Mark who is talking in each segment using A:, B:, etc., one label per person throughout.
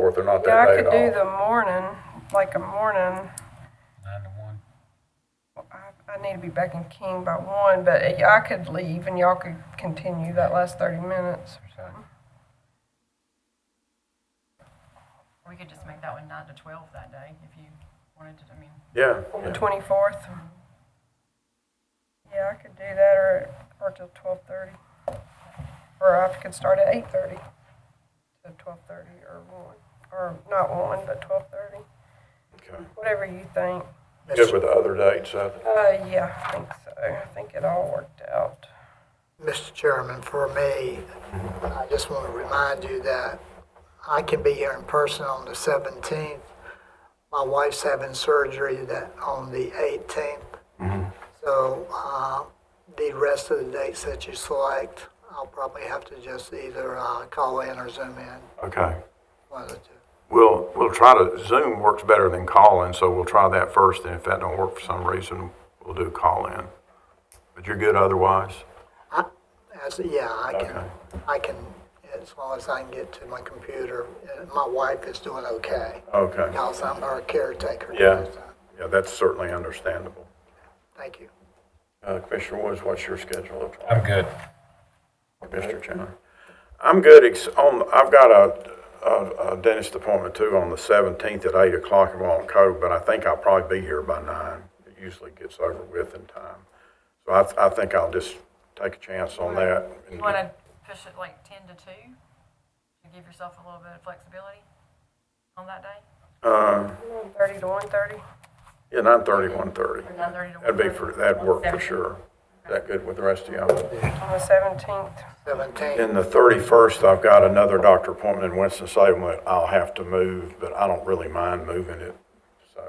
A: fourth, they're not
B: Yeah,
A: that
B: I
A: late
B: could
A: at
B: do
A: all.
B: the morning, like a morning.
C: nine to one.
B: I, I need to be back in King by one, but I could leave and y'all could continue that last thirty minutes or something.
D: We could just make that one nine to twelve that day if you wanted to, I mean,
A: Yeah,
B: On the
A: yeah.
B: twenty-fourth. Yeah, I could do that or, or till twelve-thirty. Or I could start at eight-thirty to twelve-thirty or one, or not one, but twelve-thirty,
A: okay.
B: whatever you think.
A: Good with the other dates, uh,
B: Uh, yeah, I think so. I think it all worked out.
E: Mr. Chairman, for me, I just want to remind you that I can be here in person on the 17th. My wife's having surgery that, on the
A: Mm-hmm.
E: 18th. So uh, the rest of the dates that you select, I'll probably have to just either uh, call in or Zoom in,
A: okay.
E: one of the two.
A: We'll, we'll try to, Zoom works better than calling, so we'll try that first, and if that don't work for some reason, we'll do call-in. But you're good otherwise?
E: I, as, yeah, I
A: Okay.
E: can, I can, as long as I can get to my computer. Uh, My wife is doing okay,
A: Okay.
E: because I'm her caretaker.
A: Yeah, yeah, that's certainly understandable.
E: Thank you.
A: Uh, Commissioner Woods, what's your schedule look like?
C: I'm good.
A: Mr. Chandler? I'm good, ex- on, I've got a, a- a dentist appointment too on the seventeenth at eight o'clock in Walnut Cove, but I think I'll probably be here by nine. It usually gets over with in time. So I, th- I think I'll just take a chance on that. and
D: you
A: get-
D: want to push it like ten to two to give yourself a little bit of flexibility on that day?
A: Uh,
B: Thirty to one-thirty?
A: yeah, nine thirty, one thirty.
D: Or nine thirty to one?
A: That'd be for, that'd work for sure. Is that good with the rest of y'all?
B: On the seventeenth.
E: 17.
A: Then the thirty-first, I've got another doctor appointment in Winston-Salem that I'll have to move, but I don't really mind moving it. So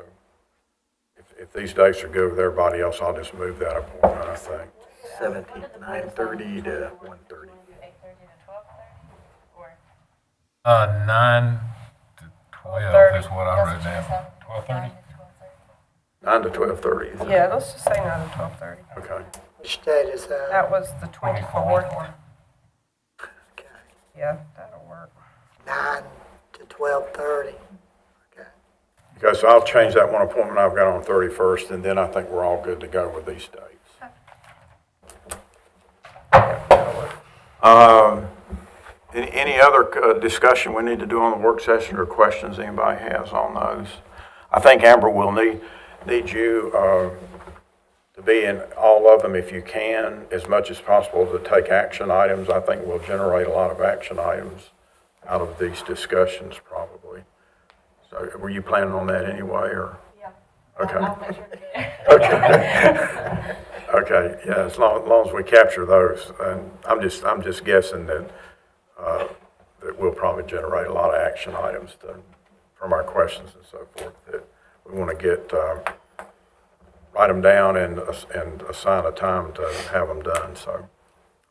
A: if, if these dates are good with everybody else, I'll just move that appointment, I think.
F: Seventeenth, nine thirty to one thirty.
D: Eight thirty to twelve thirty, or?
C: Uh, nine to twelve is what I wrote down. Twelve thirty?
A: Nine to twelve-thirty.
B: Yeah, let's just say nine to twelve-thirty.
A: Okay.
E: Which date is that?
B: That was the twenty-fourth.
E: Okay.
B: Yeah, that'll work.
E: 9 to 12:30. Okay.
A: Okay, so I'll change that one appointment I've got on thirty-first, and then I think we're all good to go with these dates. Um, Any, any other uh, discussion we need to do on the work session or questions anybody has on those? I think Amber will need, need you uh, to be in all of them if you can, as much as possible to take action items. I think we'll generate a lot of action items out of these discussions probably. So were you planning on that anyway, or?
D: Yeah.
A: Okay,
D: make sure to get
A: okay, yeah, as long, as long as we capture those, and I'm just, I'm just guessing that, uh, that we'll probably generate a lot of action items to, from our questions and so forth, that we want to get, uh, write them down and, ass- and assign a time to have them done, so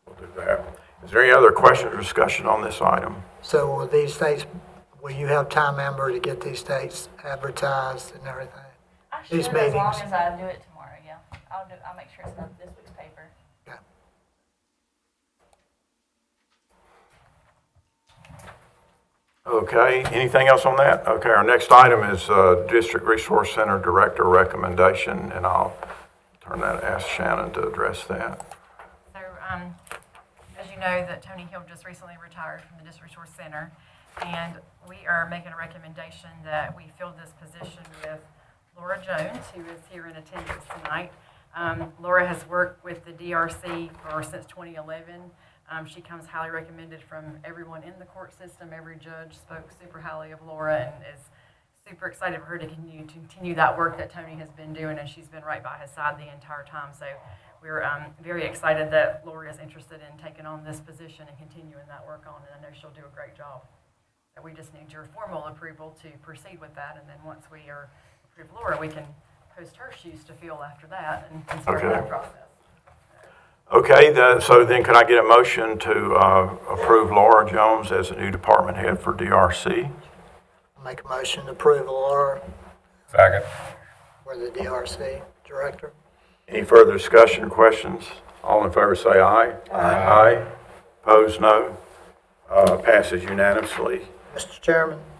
A: we'll do that. Is there any other questions or discussion on this item?
E: So will these dates, will you have time, Amber, to get these dates advertised and everything?
G: I should,
E: these
G: as long
E: meetings.
G: as I do it tomorrow, yeah. I'll do, I'll make sure it's not this week's paper.
E: Okay.
A: Okay, anything else on that? Okay, our next item is uh, District Resource Center Director Recommendation, and I'll turn that, ask Shannon to address that.
D: So, um, as you know, that Tony Hill just recently retired from the District Resource Center, and we are making a recommendation that we fill this position with Laura Jones, who is here in attendance tonight. Um, Laura has worked with the DRC for, since 2011. Um, she comes highly recommended from everyone in the court system. Every judge spoke super highly of Laura and is super excited for her to continue, to continue that work that Tony has been doing, and she's been right by his side the entire time. So we're um, very excited that Lori is interested in taking on this position and continuing that work on, and I know she'll do a great job. And we just need your formal approval to proceed with that, and then once we are approve Laura, we can post her shoes to fill after that and and start
A: Okay.
D: that process.
A: Okay, the- so then could I get a motion to uh, approve Laura Jones as the new department head for DRC?
E: Make a motion to approve Laura
C: Second.
E: for the DRC director.
A: Any further discussion or questions? All in favor say aye. Aye. Opposed, no. Uh, Passes unanimously.
E: Mr. Chairman,